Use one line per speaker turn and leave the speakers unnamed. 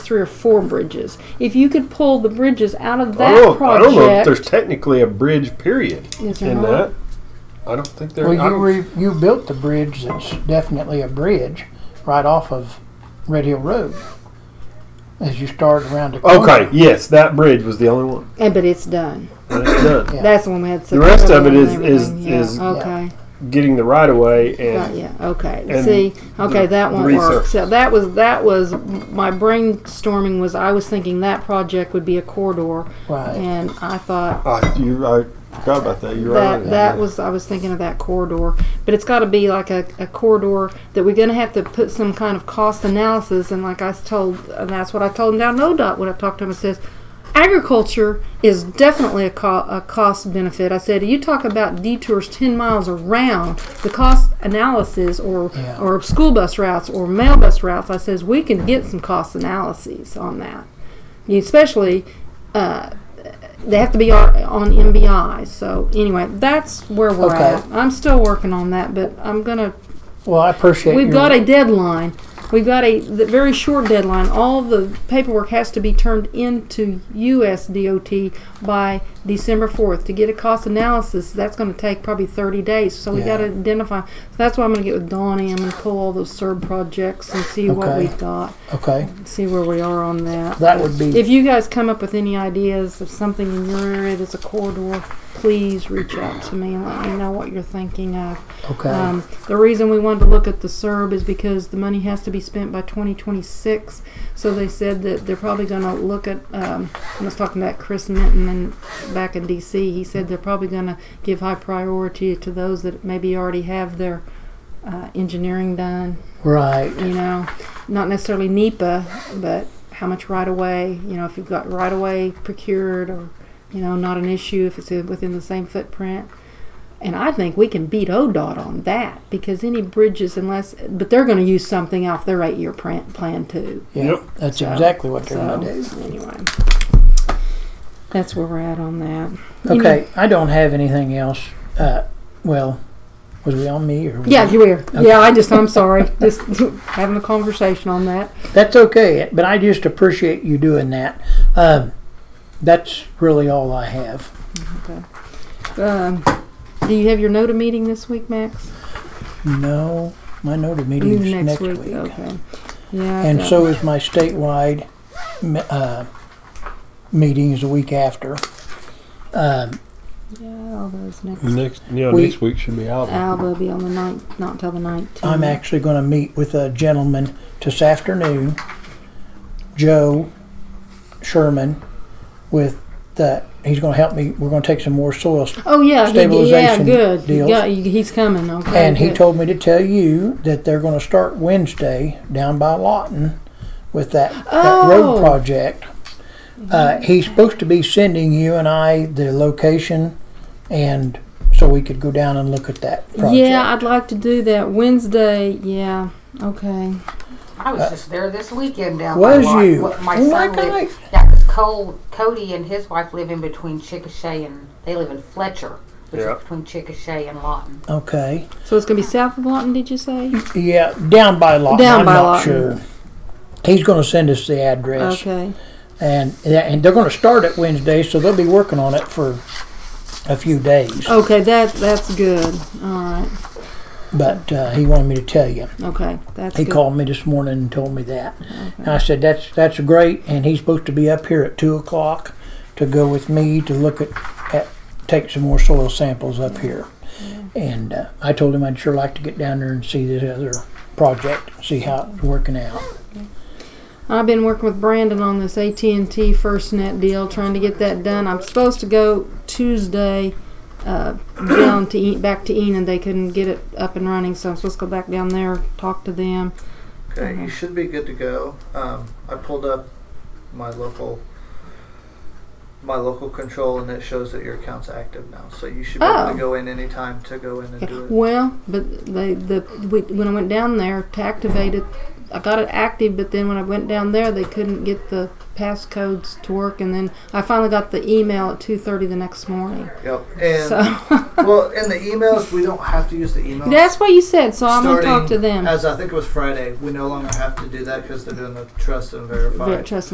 three or four bridges. If you could pull the bridges out of
I
that
don't, know, I
project, Uh-huh.
don't know if there's technically a bridge period
Is there
in
not?
that. I don't think there.
Well,
I
you
don't-
re, you built the bridge that's definitely a bridge right off of Red Hill Road as you start around the corner.
okay, yes, that bridge was the only one.
Eh, but it's done.
That's done.
Yeah.
That's the one we had.
The rest of it is-
and
is-
everything. yeah.
is-
okay.
Getting the right of way and
Got ya. Okay.
and
See. Okay,
the-
that
the
won't work. So
resurface.
that was that was my brainstorming was I was thinking that project would be a corridor,
Right.
and I thought
Ah, you, I forgot about that. You're right.
that that was I was thinking of that corridor, but it's got to be like a, a corridor that we're going to have to put some kind of cost analysis. And like I was told, and that's what I told him down at ODOT when I talked to him. I says agriculture is definitely a, co- a cost benefit. I said you talk about detours ten miles around the cost analysis or
Yeah.
or school bus routes or mail bus routes. I says we can get some cost analyses on that, You- especially Uh, they have to be on on MBI. So anyway, that's where we're
Okay.
at. I'm still working on that, but I'm gonna.
Well, I appreciate
We've
your-
got a deadline. We've got a the very short deadline. All the paperwork has to be turned into US DOT by December 4th to get a cost analysis. That's going to take probably 30 days. So we
Yeah.
got to identify. So that's why I'm going to get with Donnie. I'm going to pull all those SERB projects and see what
Okay.
we've got
Okay.
see where we are on that.
That would be-
If you guys come up with any ideas of something in your area that's a corridor, please reach out to me and let me know what you're thinking of.
Okay.
Um, the reason we wanted to look at the SERB is because the money has to be spent by 2026. So they said that they're probably going to look at. Um, I was talking about Chris Minton and back in D.C. He said they're probably going to give high priority to those that maybe already have their uh, engineering done
right.
you know, not necessarily NEPA, but how much right of way, you know, if you've got right of way procured or, you know, not an issue if it's within the same footprint. And I think we can beat ODOT on that because any bridges, unless, but they're going to use something off their eight year plan, plan too.
Yeah,
Yep.
That's
So-
exactly what they're
So,
going to do.
anyway, that's where we're at on that. You know-
Okay. I don't have anything else. Uh, well, was we on me or? was
yeah,
it-
you were. Yeah, I just, I'm sorry. Just having a conversation on that.
That's okay. But I just appreciate you doing that. Um, that's really all I have.
Um, do you have your NOTA meeting this week, Max?
No, my NOTA
I mean,
meeting is next, week.
Okay. Yeah.
And
that-
so is my statewide me- uh, meeting is a week after. Um,
Yeah, all those next.
next. Yeah,
We-
next week should be out.
Alba will be on the ninth, not till the nineteenth.
I'm actually going to meet with a gentleman this afternoon, Joe Sherman, with the, he's going to help me, we're going to take some more soil. s-
Oh yeah, he, yeah,
stabilization
good. You
deals.
got- you- he's coming. Okay.
And he
good.
told me to tell you that they're going to start Wednesday down by Lawton with that, that
Oh.
road project. Uh, he's supposed to be sending you and I the location, and so we could go down and look at that project.
Yeah, I'd like to do that Wednesday. Yeah. Okay.
I was just there this weekend down
Was
by Lot-
you?
what My
Oh, my
son live-
gosh.
Yeah, 'cause Cole, Cody and his wife live in between Chickasha and, they live in Fletcher, which
Yeah.
is between Chickasha and Lawton.
Okay.
So it's gonna be south of Lawton, did you say?
Yeah, down by Lawton.
Down
I'm
by
not
Lawton.
sure. He's going to send us the address,
Okay.
and yeah, and they're going to start it Wednesday, so they'll be working on it for a few days.
Okay. That that's good. All right.
But uh, he wanted me to tell you.
Okay. That's
He
good.
called me this morning and told me that. And I said, "That's that's great." And he's supposed to be up here at two o'clock to go with me to look at, at take some more soil samples up here. And uh, I told him I'd sure like to get down there and see this other project, see how it's working out.
I've been working with Brandon on this AT&T FirstNet deal, trying to get that done. I'm supposed to go Tuesday uh, down to e- back to Enon. They couldn't get it up and running, so I'm supposed to go back down there, talk to them.
Okay,
Mm-hmm.
you should be good to go. Um, I pulled up my local my local control, and it shows that your account's active now. So you should be able
Oh.
to go in anytime to go in and do it.
Well, but they, the we, when I went down there to activate it, I got it active, but then when I went down there, they couldn't get the passcodes to work, and then I finally got the email at two thirty the next morning.
Yep. And uh,
so
well, in the emails, we don't have to use the emails.
that's what you said. So I'm gonna talk
Starting
to them.
As I think it was Friday, we no longer have to do that because they're doing the trust and verify.
Trust